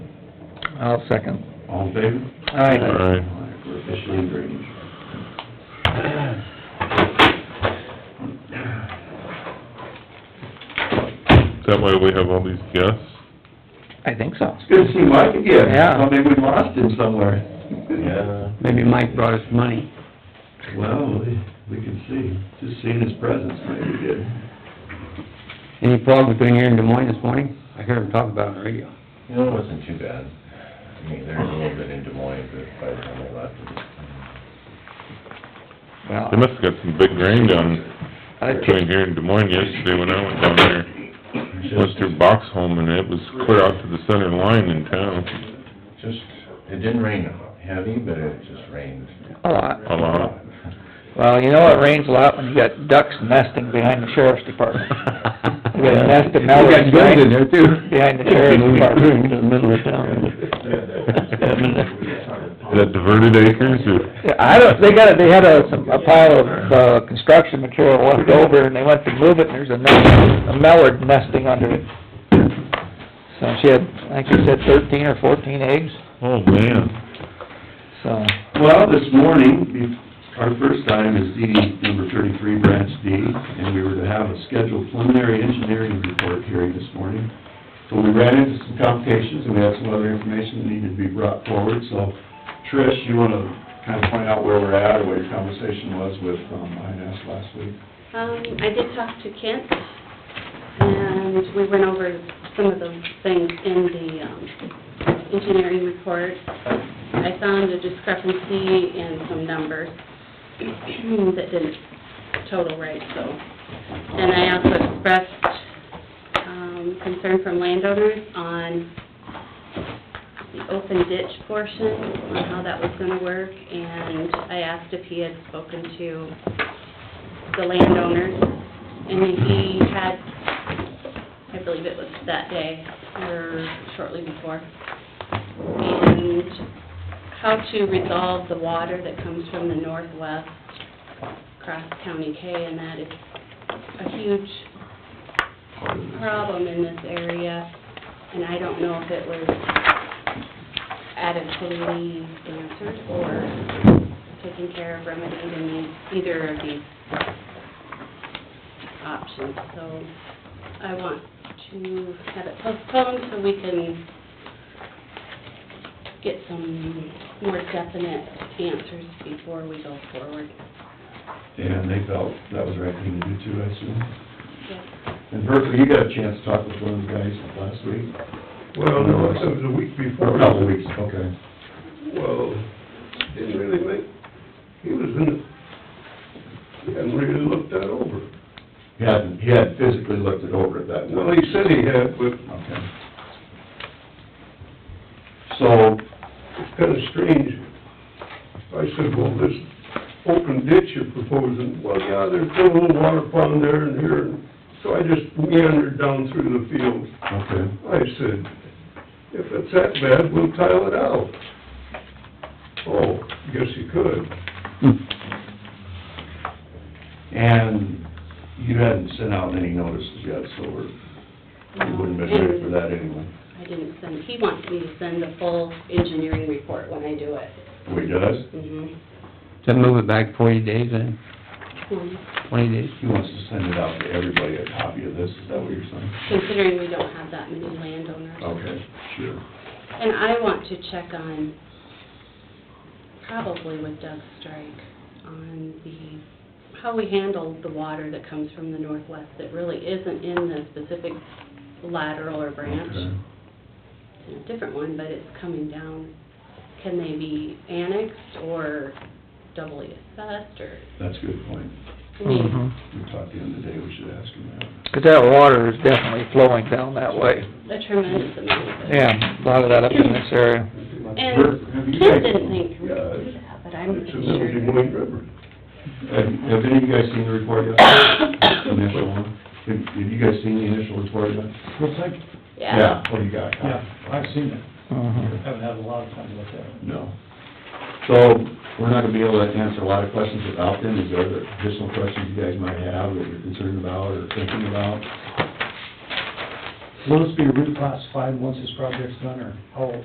I'll second. All in favor? Aye. Aye, We're officially in drainage. That way we have all these guests. I think so. It's good to see Mike again. Yeah. Thought maybe we lost him somewhere. Maybe Mike brought us money. Well, we- we can see, just seeing his presence maybe did. Any fog between here and Des Moines this morning? I heard him talk about it on the radio. You know, it wasn't too bad. I mean, there's a little bit in Des Moines, but by the time they left, it was... Well, They must've got some big rain down I- between here and Des Moines yesterday when I went down there. Went through Boxholm and it was clear out to the center line in town, Just, it didn't rain heavy, but it just rained. a lot. a lot. Well, you know it rains a lot when you got ducks nesting behind the sheriff's department. We got a nest of We mallards got guns in there too. behind the sheriff's department. In the middle of town. Is that diverted acres Yeah, or? I don't, they got, a- they had a, some- a pile of, uh, construction material left over, and they went to move it, and there's a nest, a mallard nesting under it. So she had, I think she said thirteen or fourteen eggs, Oh, man. so, Well, this morning, be- our first item is DD number thirty-three, branch D, and we were to have a scheduled preliminary engineering report hearing this morning. So we ran into some complications, and we had some other information that needed to be brought forward, so Trish, you wanna kinda point out where we're at, or what your conversation was with, um, INS last week? Um, I did talk to Kent, and we went over some of those things in the, um, engineering report. I found a discrepancy in some numbers that didn't total right, so. And I also expressed, um, concern from landowners on the open ditch portion, on how that was gonna work, and I asked if he had spoken to the landowners, and he had, I believe it was that day, or shortly before, and how to resolve the water that comes from the northwest across County K, and that is a huge problem in this area, and I don't know if it was adequately answered or taken care of, remedied in either of these options, so I want to have it postponed so we can get some more definite answers before we go forward. And they felt that was the right thing to do too, I assume. Yes. And Berkeley, you got a chance to talk with one of the guys last week? Well, no, it was a week Or before. a couple of weeks, okay. Well, didn't really make, he was in it. He hadn't really looked that over. He hadn't, he had physically looked it over at that time. Well, he said he had, but Okay. So, it's kinda strange. I said, well, this open ditch you're proposing, well, yeah, there's still a little water pond there and here. and So I just meandered down through the fields. okay, I said, if it's that bad, we'll tile it out. Oh, guess you could. Hmm. and you hadn't sent out any notices yet, so we're, we wouldn't have been ready for that eh? anyway. Um, I didn't send, he wants me to send the full engineering report when I do it. Oh, he does? Mhm. Then move it back forty days then, Um, twenty days. He wants to send it out to everybody, a copy of this, is that what you're saying? Considering we don't have that many landowners. Okay, sure. And I want to check on, probably with Doug Strike, on the, how we handle the water that comes from the northwest that really isn't in the specific lateral or branch. Okay. It's a different one, but it's coming down. Can they be annexed or doubly assessed or, That's a good point. I mean, mhm. We talked to him today, we should ask him that. 'Cause that water is definitely flowing down that way. a tremendous amount of it. Yeah, a lot of that up in this area. Have And you Ken guys- uh, didn't think we Yeah, could do that, but I'm It's a little sure. Des Moines River. Have, have any of you guys seen the report yet? The Initial one? Have, have you guys seen the initial report yet? Yeah. What do you got? Yeah, I've seen it, Mhm. haven't had a lot of time to look at it. No. So, we're not gonna be able to answer a lot of questions without them. Is there other additional questions you guys might have that you're concerned about or thinking about? Will this be reclassified once this project's done, or how